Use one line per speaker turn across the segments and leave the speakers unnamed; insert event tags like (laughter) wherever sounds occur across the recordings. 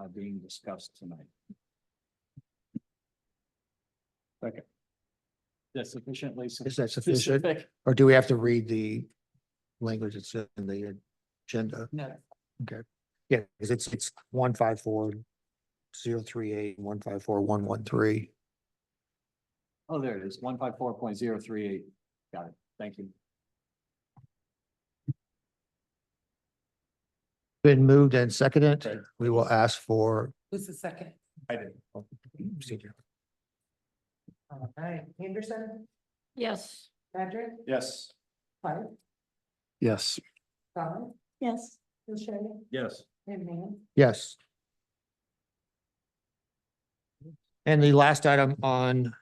uh, being discussed tonight.
Second.
That's sufficiently.
Is that sufficient?
specific.
Or do we have to read the language that's in the agenda?
No.
Yeah, because it's, it's one five four zero three eight, one five four, one one three.
Oh, there it is, one five four point zero three eight. Got it. Thank you.
Been moved and
Right.
seconded. We will ask for.
Who's the second?
I did.
All right, Anderson,
Yes.
Patrick,
Yes.
Clark,
Yes.
Colin,
Yes.
O'Shea,
Yes.
and Mann.
Yes. And the last item on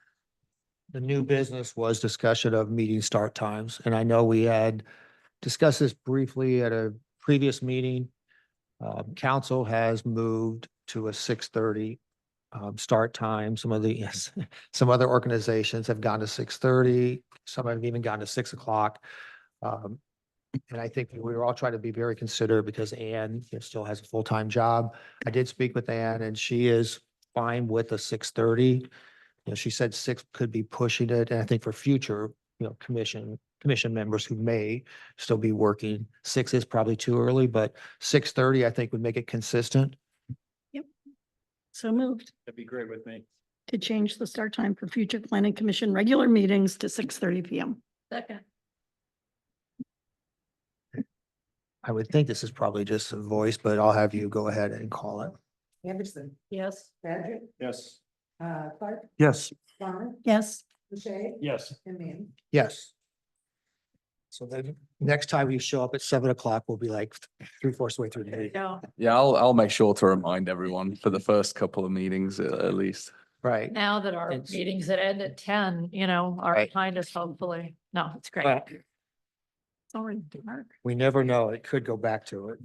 the new business was discussion of meeting start times. And I know we had discussed this briefly at a previous meeting. Um, council has moved to a six thirty um, start time. Some of the, yes, (laughs) some other organizations have gone to six thirty. Some have even gone to six o'clock. Um, and I think we were all trying to be very considerate because Anne you know, still has a full-time job. I did speak with Anne and she is fine with a six thirty. You know, she said six could be pushing it. And I think for future, you know, commission, commission members who may still be working, six is probably too early, but six thirty, I think would make it consistent.
So moved
That'd be great with me.
to change the start time for future planning commission regular meetings to six thirty P M. Second.
I would think this is probably just a voice, but I'll have you go ahead and call it.
Anderson,
Yes.
Patrick,
Yes.
uh, Clark,
Yes.
Colin,
Yes.
O'Shea,
Yes.
and Mann.
Yes. So then next time you show up at seven o'clock, we'll be like three fourths way through the meeting.
Go.
Yeah, I'll, I'll make sure to remind everyone for the first couple of meetings at, at least.
Right.
Now that our
It's-
meetings that end at ten, you know, are
Right.
behind us hopefully. No, it's great.
But
Sorry, Mark.
we never know. It could go back to it.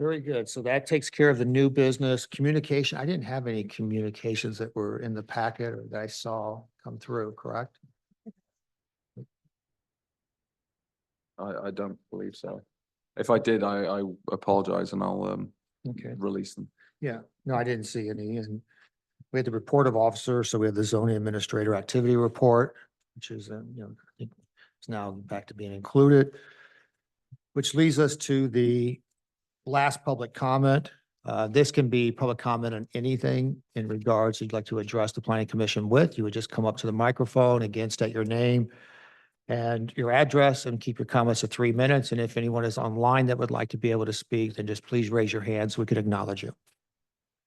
Very good. So that takes care of the new business communication. I didn't have any communications that were in the packet or that I saw come through, correct?
I, I don't believe so. If I did, I, I apologize and I'll, um,
Okay.
release them.
Yeah, no, I didn't see any. And we had the report of officer, so we have the zoning administrator activity report, which is, um, you know, I think it's now back to being included. Which leads us to the last public comment. Uh, this can be public comment on anything in regards you'd like to address the planning commission with. You would just come up to the microphone, again, state your name and your address and keep your comments to three minutes. And if anyone is online that would like to be able to speak, then just please raise your hand so we could acknowledge you.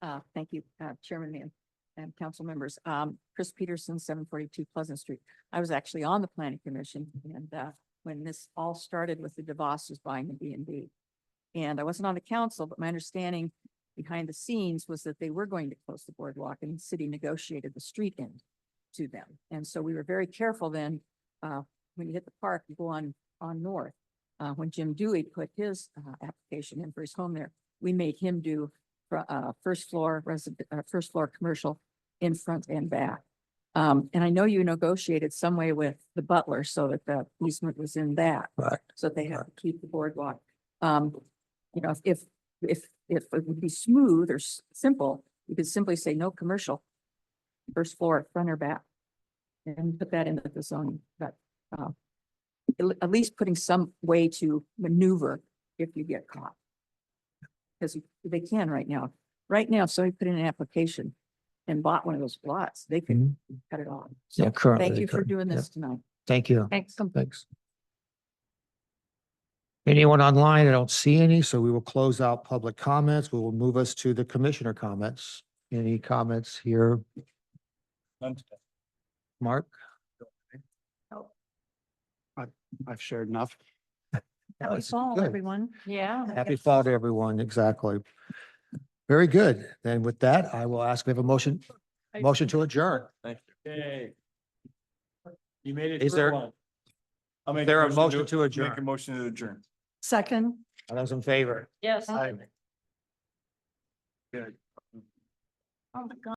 Uh, thank you, uh, Chairman Mann and council members. Um, Chris Peterson, seven forty-two Pleasant Street. I was actually on the planning commission and, uh, when this all started with the DeVos's buying the B and B. And I wasn't on the council, but my understanding behind the scenes was that they were going to close the boardwalk and the city negotiated the street end to them. And so we were very careful then, uh, when you hit the park, you go on, on north. Uh, when Jim Dewey put his, uh, application in for his home there, we made him do fr- uh, first floor resident, uh, first floor commercial in front and back. Um, and I know you negotiated some way with the butler so that the easement was in that.
Right.
So they have to keep the boardwalk. Um, you know, if, if, if it would be smooth or s- simple, you could simply say no commercial. First floor, front or back. And put that into the zone, but, uh, at le- at least putting some way to maneuver if you get caught. Because they can right now. Right now, if somebody put in an application and bought one of those lots, they can
Mhm.
cut it off.
Yeah,
So
currently.
thank
they
you for
couldn't.
doing
Yeah.
this tonight.
Thank you.
Thanks.
Thanks. Anyone online? I don't see any, so we will close out public comments. We will move us to the commissioner comments. Any comments here, Mark?
I've shared enough.
Happy
That's
fall,
good.
everyone.
Yeah.
Happy fall to everyone, exactly. Very good. Then with that, I will ask, we have a motion, motion to adjourn.
Yay. You made it.
Is
through
there-
one. I'll make
There a motion to
Make a
adjourn?
motion to adjourn.
Second.
All those in favor?
Yes.
Aye.
Oh, my God.